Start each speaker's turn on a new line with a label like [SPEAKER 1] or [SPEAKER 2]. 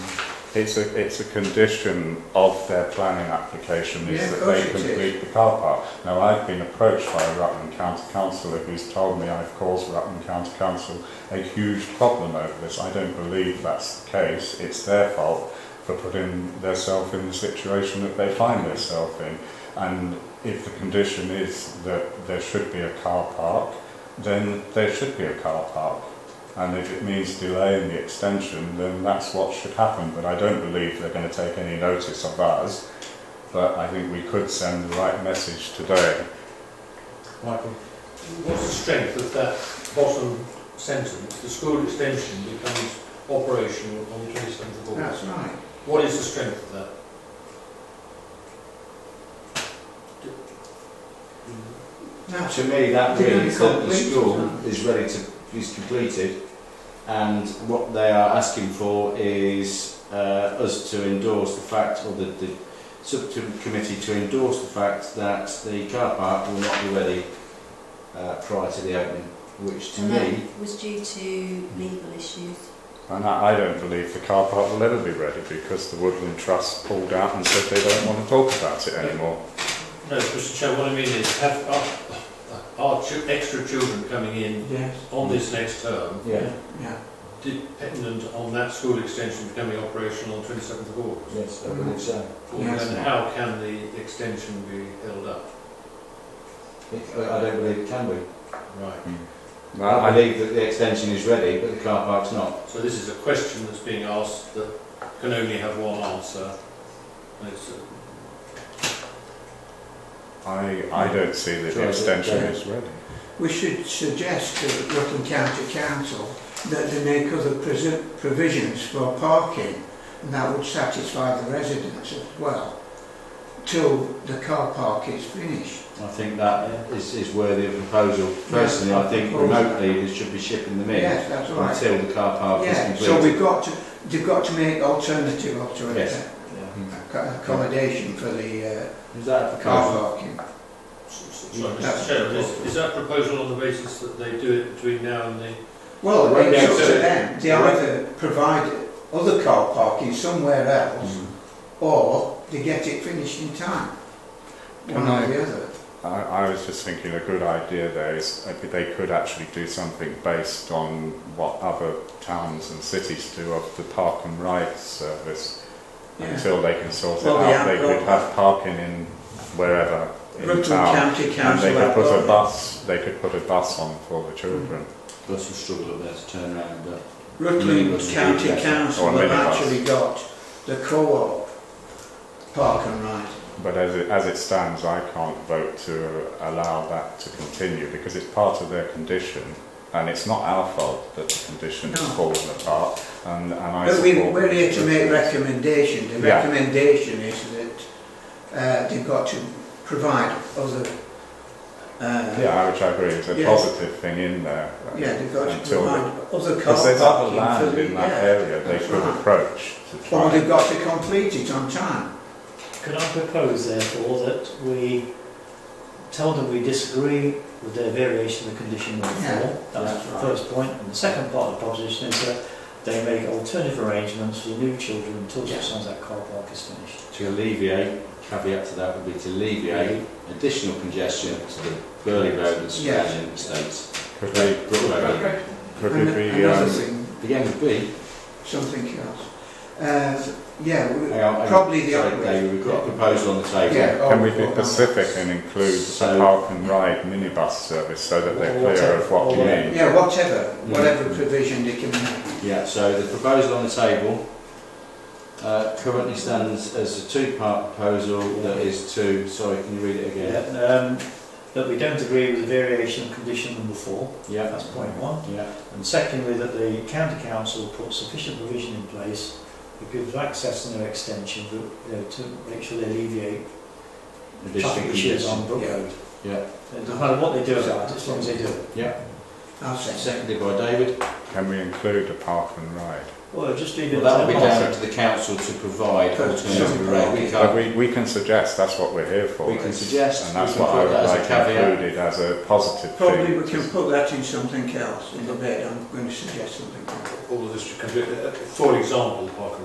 [SPEAKER 1] It's a, it's a condition of their planning application
[SPEAKER 2] Yeah,
[SPEAKER 1] is
[SPEAKER 2] of
[SPEAKER 1] that
[SPEAKER 2] course
[SPEAKER 1] they
[SPEAKER 2] it is.
[SPEAKER 1] complete the car park. Now, I've been approached by a Rutland County councillor who's told me I've caused Rutland County Council a huge problem over this. I don't believe that's the case. It's their fault for putting themselves in the situation that they find themselves in. And if the condition is that there should be a car park, then there should be a car park. And if it means delaying the extension, then that's what should happen. But I don't believe they're going to take any notice of us. But I think we could send the right message today.
[SPEAKER 3] Michael, what's the strength of that bottom sentence? The school extension becomes operational on the 27th of August.
[SPEAKER 2] That's right.
[SPEAKER 3] What is the strength of that?
[SPEAKER 2] That's
[SPEAKER 4] To me, that
[SPEAKER 2] They're
[SPEAKER 4] means
[SPEAKER 2] gonna
[SPEAKER 4] that the
[SPEAKER 2] complete
[SPEAKER 4] school
[SPEAKER 2] it,
[SPEAKER 4] is ready to, is completed, and what they are asking for is uh, us to endorse the fact, or the, the subcommittee to endorse the fact that the car park will not be ready uh, prior to the opening, which to
[SPEAKER 5] And
[SPEAKER 4] me,
[SPEAKER 5] that was due to legal issues.
[SPEAKER 1] And I, I don't believe the car park will ever be ready because the Woodland Trust pulled out and said they don't want to talk about it anymore.
[SPEAKER 3] No, Mr Chair, what I mean is, have, are, are chu- extra children coming in
[SPEAKER 2] Yes.
[SPEAKER 3] on this next term
[SPEAKER 4] yeah,
[SPEAKER 2] Yeah.
[SPEAKER 3] dependent on that school extension becoming operational on 27th of August?
[SPEAKER 4] yes, I believe so.
[SPEAKER 2] Yes.
[SPEAKER 3] Then how can the extension be held up?
[SPEAKER 4] It- I I don't believe it can be.
[SPEAKER 3] Right.
[SPEAKER 1] No,
[SPEAKER 4] I
[SPEAKER 1] I,
[SPEAKER 4] believe that the extension is ready, but the car park's not.
[SPEAKER 3] So this is a question that's being asked that can only have one answer. And it's a
[SPEAKER 1] I, I don't see that
[SPEAKER 4] Sure,
[SPEAKER 1] the
[SPEAKER 4] I
[SPEAKER 1] extension
[SPEAKER 4] don't.
[SPEAKER 1] is ready.
[SPEAKER 2] We should suggest to the Rutland County Council that they make other presi- provisions for parking and that would satisfy the residents as well till the car park is finished.
[SPEAKER 4] I think that is, is worthy of proposal. Personally, I think remotely, they should be shipping them in.
[SPEAKER 2] Yes, that's right.
[SPEAKER 4] until the car park
[SPEAKER 2] Yeah,
[SPEAKER 4] is
[SPEAKER 2] so
[SPEAKER 4] completed.
[SPEAKER 2] we've got to, they've got to make alternative
[SPEAKER 4] Yes.
[SPEAKER 2] alternative
[SPEAKER 1] Hmm.
[SPEAKER 4] Yeah.
[SPEAKER 2] accommodation for the uh,
[SPEAKER 4] Is that the
[SPEAKER 2] car
[SPEAKER 4] car?
[SPEAKER 2] parking.
[SPEAKER 3] Sorry, Mr Chairman, is, is that proposal on the basis that they do it between now and the...
[SPEAKER 2] Well,
[SPEAKER 4] Right
[SPEAKER 2] it's up
[SPEAKER 4] now,
[SPEAKER 2] to
[SPEAKER 4] so-
[SPEAKER 2] them. They either provide other car parking somewhere else
[SPEAKER 4] Mm.
[SPEAKER 2] or they get it finished in time. One
[SPEAKER 1] Can
[SPEAKER 2] or
[SPEAKER 1] I-
[SPEAKER 2] the other.
[SPEAKER 1] I, I was just thinking a good idea there is uh, they could actually do something based on what other towns and cities do of the park and ride service.
[SPEAKER 2] Yeah.
[SPEAKER 1] Until they can sort
[SPEAKER 2] Well,
[SPEAKER 1] it
[SPEAKER 2] the
[SPEAKER 1] out, they could
[SPEAKER 2] outdoor-
[SPEAKER 1] have parking in wherever in
[SPEAKER 2] Rutland
[SPEAKER 1] town.
[SPEAKER 2] County
[SPEAKER 1] and
[SPEAKER 2] Council.
[SPEAKER 1] they could
[SPEAKER 2] have
[SPEAKER 1] put a
[SPEAKER 2] got-
[SPEAKER 1] bus. They could put a bus on for the children.
[SPEAKER 4] Bus will struggle up there to turn around, but
[SPEAKER 2] Rutland
[SPEAKER 4] Minibus.
[SPEAKER 2] County
[SPEAKER 4] Yeah.
[SPEAKER 2] Council
[SPEAKER 1] Or a
[SPEAKER 2] have
[SPEAKER 1] minibus.
[SPEAKER 2] actually got the co-op park and ride.
[SPEAKER 1] But as it, as it stands, I can't vote to allow that to continue because it's part of their condition, and it's not our fault that the condition
[SPEAKER 2] No.
[SPEAKER 1] has fallen apart. And, and I
[SPEAKER 2] But we,
[SPEAKER 1] support
[SPEAKER 2] we're here to make
[SPEAKER 1] this.
[SPEAKER 2] recommendation. The
[SPEAKER 1] Yeah.
[SPEAKER 2] recommendation is that uh, they've got to provide other uh,
[SPEAKER 1] Yeah, which I agree, it's a
[SPEAKER 2] Yeah.
[SPEAKER 1] positive thing in there. uh,
[SPEAKER 2] Yeah, they've got to
[SPEAKER 1] until-
[SPEAKER 2] provide other car
[SPEAKER 1] Because there's other
[SPEAKER 2] parking for
[SPEAKER 1] land
[SPEAKER 2] the,
[SPEAKER 1] in that
[SPEAKER 2] yeah.
[SPEAKER 1] area they
[SPEAKER 2] that's
[SPEAKER 1] could
[SPEAKER 2] right.
[SPEAKER 1] approach to
[SPEAKER 2] Or
[SPEAKER 1] try.
[SPEAKER 2] they've got to complete it on time.
[SPEAKER 6] Could I propose therefore that we tell them we disagree with their variation of the condition number
[SPEAKER 2] Yeah,
[SPEAKER 6] four? That's
[SPEAKER 4] that's
[SPEAKER 6] the
[SPEAKER 4] right.
[SPEAKER 6] first point. And the second part of the proposition is that they make alternative arrangements for new children until
[SPEAKER 2] Yeah.
[SPEAKER 6] such times that car park is finished.
[SPEAKER 4] to alleviate, caveat to that would be to alleviate additional congestion to the Burley Road and surrounding estates.
[SPEAKER 1] Could we,
[SPEAKER 4] Brook Road.
[SPEAKER 1] could
[SPEAKER 2] And
[SPEAKER 1] we be,
[SPEAKER 2] another
[SPEAKER 1] um,
[SPEAKER 2] thing,
[SPEAKER 4] The end would be,
[SPEAKER 2] something else. Uh, yeah, we,
[SPEAKER 4] hang on, hang on,
[SPEAKER 2] probably the
[SPEAKER 4] sorry,
[SPEAKER 2] other way.
[SPEAKER 4] David, we've got a proposal on the table.
[SPEAKER 2] Yeah, oh,
[SPEAKER 1] can we be
[SPEAKER 2] well,
[SPEAKER 1] specific and include the
[SPEAKER 4] So-
[SPEAKER 1] park and ride minibus service so that they're
[SPEAKER 6] Or
[SPEAKER 1] clear
[SPEAKER 6] whatever-
[SPEAKER 1] of what we
[SPEAKER 6] or
[SPEAKER 1] need?
[SPEAKER 2] Yeah, whatever,
[SPEAKER 4] Mm.
[SPEAKER 2] whatever provision they can make.
[SPEAKER 4] Yeah, so the proposal on the table uh, currently stands as a two-part proposal that is to, sorry, can you read it again?
[SPEAKER 6] Yeah, um, that we don't agree with the variation of condition number four, that's point one.
[SPEAKER 4] Yeah,
[SPEAKER 6] And secondly, that the county council put sufficient provision in place that gives access and no extension but, you know, to make sure they alleviate
[SPEAKER 4] additional
[SPEAKER 6] traffic issues
[SPEAKER 4] congestion.
[SPEAKER 6] on Brook
[SPEAKER 2] Yeah.
[SPEAKER 6] Road.
[SPEAKER 4] Yeah.
[SPEAKER 6] It doesn't matter what they do about it, as long as they do it.
[SPEAKER 2] I'll say.
[SPEAKER 4] Seconded by David.
[SPEAKER 1] Can we include a park and ride?
[SPEAKER 6] Well, just leave
[SPEAKER 4] Well,
[SPEAKER 6] it
[SPEAKER 4] that will be
[SPEAKER 6] at
[SPEAKER 4] down to the council to provide
[SPEAKER 2] But
[SPEAKER 4] alternative arrangements.
[SPEAKER 1] But we, we can suggest, that's what we're here for.
[SPEAKER 4] We can suggest,
[SPEAKER 1] And
[SPEAKER 4] we
[SPEAKER 1] that's
[SPEAKER 4] can
[SPEAKER 1] what I
[SPEAKER 4] put
[SPEAKER 1] would
[SPEAKER 4] that as a
[SPEAKER 1] like
[SPEAKER 4] caveat.
[SPEAKER 1] included as a positive
[SPEAKER 2] Probably
[SPEAKER 1] thing.
[SPEAKER 2] we can put that in something else in the bit. I'm going to suggest something else.
[SPEAKER 3] All of this, should come to- Uh, for example, the park and